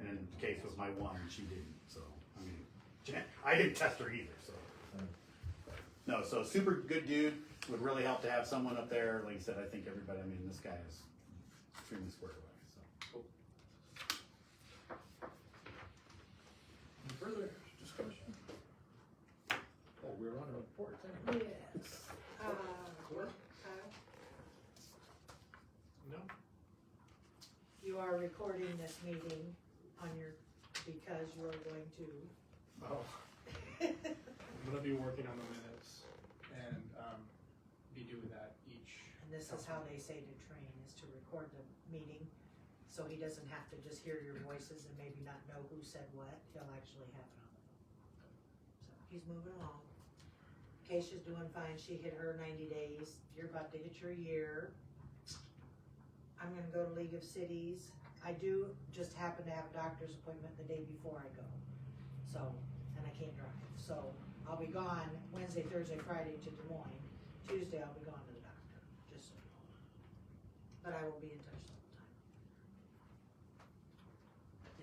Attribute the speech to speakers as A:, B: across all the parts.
A: Mm-hmm.
B: case was my one, and she didn't, so, I mean, Jan, I didn't test her either, so.
A: uh,
B: No, so super good dude, would really help to have someone up there, like I said, I think everybody, I mean, this guy is extremely squared away, so.
C: Any Further discussion? Oh, we're on reports anyway.
D: Yes. Uh,
C: Clerk?
D: Kyle,
C: No.
D: You are recording this meeting on your, because you are going
C: Oh,
D: to.
C: I'm gonna be working on the minutes and, um, be doing that each.
D: And this is how they say to train, is to record the meeting, so he doesn't have to just hear your voices and maybe not know who said what, he'll actually have it on the phone. So, he's moving along. Keisha's doing fine, she hit her ninety days, you're about to hit your year. I'm gonna go to League of Cities, I do just happen to have a doctor's appointment the day before I go, so, and I can't drive, so I'll be gone Wednesday, Thursday, Friday to Des Moines, Tuesday I'll be gone to the doctor just so you know. But I will be in touch the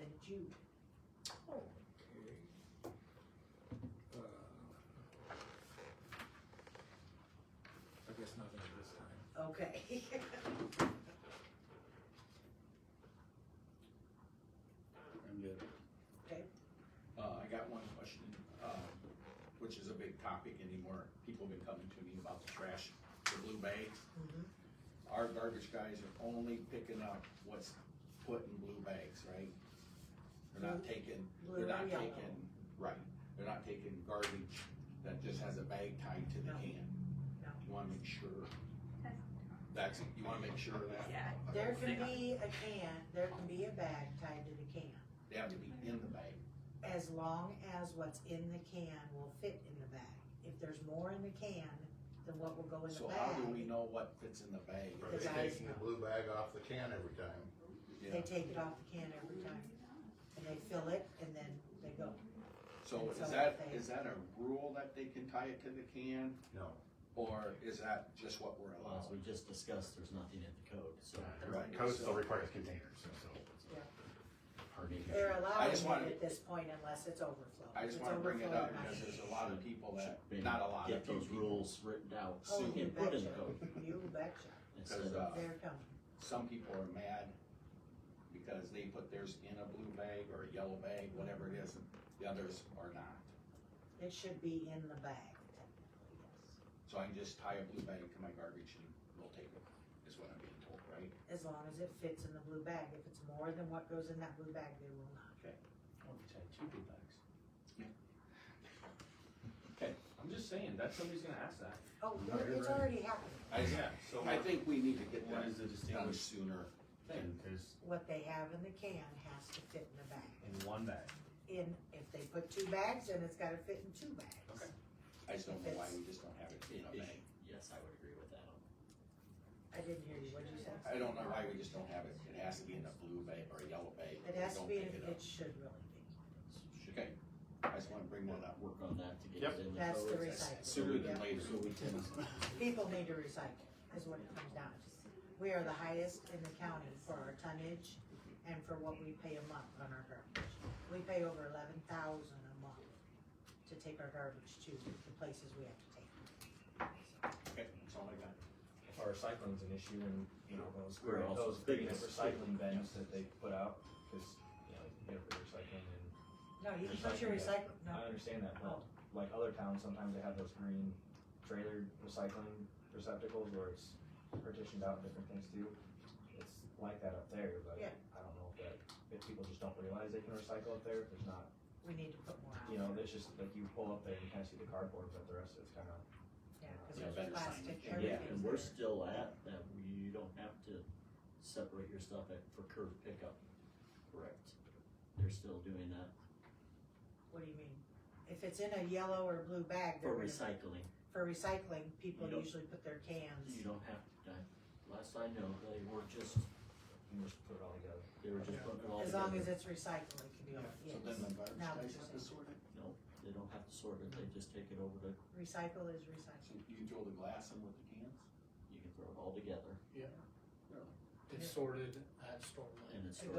D: whole time. Then Jude,
A: Oh,
C: Okay. Uh, I guess nothing at this time.
D: okay.
B: I'm good.
E: Uh, I got one question, um, which is a big topic anymore. People have been coming to me about the trash, the blue bags.
D: Mhm.
E: Our garbage guys are only picking up what's put in blue bags, right? They're not taking,
D: Blue
E: they're not
D: and yellow.
E: taking, right, they're not taking garbage that just has a bag tied to the
D: No.
E: can.
D: No.
E: You wanna make sure. That's, you wanna make sure of that,
F: Yeah.
D: There can be a can, there can be a bag tied to the can,
E: they have to be in the bag.
D: as long as what's in the can will fit in the bag. If there's more in the can than what will go in the
E: So how do we
D: bag,
E: know what fits in the bag?
G: Are they
D: The guys
G: taking the
D: know.
G: blue bag off the can every time?
D: they take it off the can every time. And they fill it and then they go.
E: So
D: It's
E: is
D: a
E: that,
D: thing.
E: is that a rule that they can tie it to the can,
G: No.
E: or is that just what we're
H: Well, as
E: allowed?
H: we just discussed, there's nothing in the code, so.
E: Right.
B: Code still requires containers, so.
D: Yeah.
B: Pardon me.
D: They're allowing
E: just wanna-
D: it at this point unless it's overflow.
E: I just
D: It's
E: wanna bring it
D: overflow,
E: up
D: you're not
E: because
D: gonna-
E: there's a lot of people that,
H: Should maybe
E: not a lot
H: Get
E: of
H: those
E: people.
H: rules written out
D: Oh,
H: soon
D: you
H: and put in the
D: betcha.
H: code.
D: You betcha.
H: instead
E: uh,
H: of-
D: They're coming.
E: Some people are mad because they put theirs in a blue bag or a yellow bag, whatever it is, and the others are not.
D: It should be in the bag, technically, yes.
E: So I can just tie a blue bag to my garbage and we'll take it, is what I'm being told, right?
D: As long as it fits in the blue bag. If it's more than what goes in that blue bag, they will not.
A: Oh, we tied two big bags. Okay, I'm just saying, that somebody's gonna ask that.
D: Oh,
A: No, you're
D: it's
A: right.
D: already happening,
E: I,
A: Yeah, so
E: I think we need to get
A: What
E: that
A: is the
E: done
A: distinguished
E: sooner.
A: thing?
D: what they have in the can has to fit in the bag.
A: In one bag.
D: In, if they put two bags, then it's gotta fit in two bags.
A: Okay.
E: I just don't know why we just don't have it in a
H: It- it
E: bag.
H: should- Yes, I would agree with that.
D: I didn't hear you, what'd you say?
E: I don't know why we just don't have it, it has to be in a blue bag or a yellow bag.
D: It has to
E: Don't
D: be,
E: pick
D: in-
E: it up.
D: it should really be.
E: Okay, I just wanna bring that up,
H: Work on that to get
B: Yep.
H: it in the code.
D: That's the
E: sooner
D: recycling.
E: than
D: Yep.
E: later.
H: So we can,
D: People need to recycle, is what it comes down to. We are the highest in the county for our tonnage and for what we pay a month on our garbage. We pay over eleven thousand a month to take our garbage to the places we have to take. it.
E: Okay, that's all I got.
A: If our recycling's an issue and, you know, those,
H: We're
A: great-
H: also
A: those big
H: biggest-
A: recycling bins that they put out, cause, you know, you get for recycling and,
D: No, you can put your
A: Recycling,
D: recycle, no, Oh.
A: I understand that,
D: no,
A: but like other towns, sometimes they have those green trailer recycling receptacles where it's partitioned out and different things too. It's like that up there, but
D: Yeah.
A: I don't know if that, if people just don't realize they can recycle up there, if there's not
D: we need to put more out.
A: You know, it's just like you pull up there and you kind of see the cardboard, but the rest of it's kind of.
D: Yeah, cause
E: Yeah,
D: there's
E: better sign
D: plastic,
E: it. Yeah,
H: yeah,
D: everything's
H: and we're
D: there.
H: still at that, you don't have to separate your stuff at, for curb pickup. Correct. They're still doing that
D: What do you mean? If it's in a yellow or blue bag,
H: for
D: they're gonna-
H: recycling.
D: for recycling, people
H: You don't-
D: usually put their
H: You
D: cans.
H: don't have to, I- last I know, they were just,
A: You just put it all together.
H: they were just putting it all
D: As
H: together.
D: long as it's recyclable, it can be,
E: So then
D: yes.
E: the garbage
D: Now
E: guys
D: it's
E: have
D: just-
E: to sort it,
H: No, they don't have to sort it, they just take it over to,
D: Recycle is recycling.
E: so you can throw the glass in with the cans?
H: you can throw it all together
C: It's sorted at Stormlight.
H: and it's.
D: It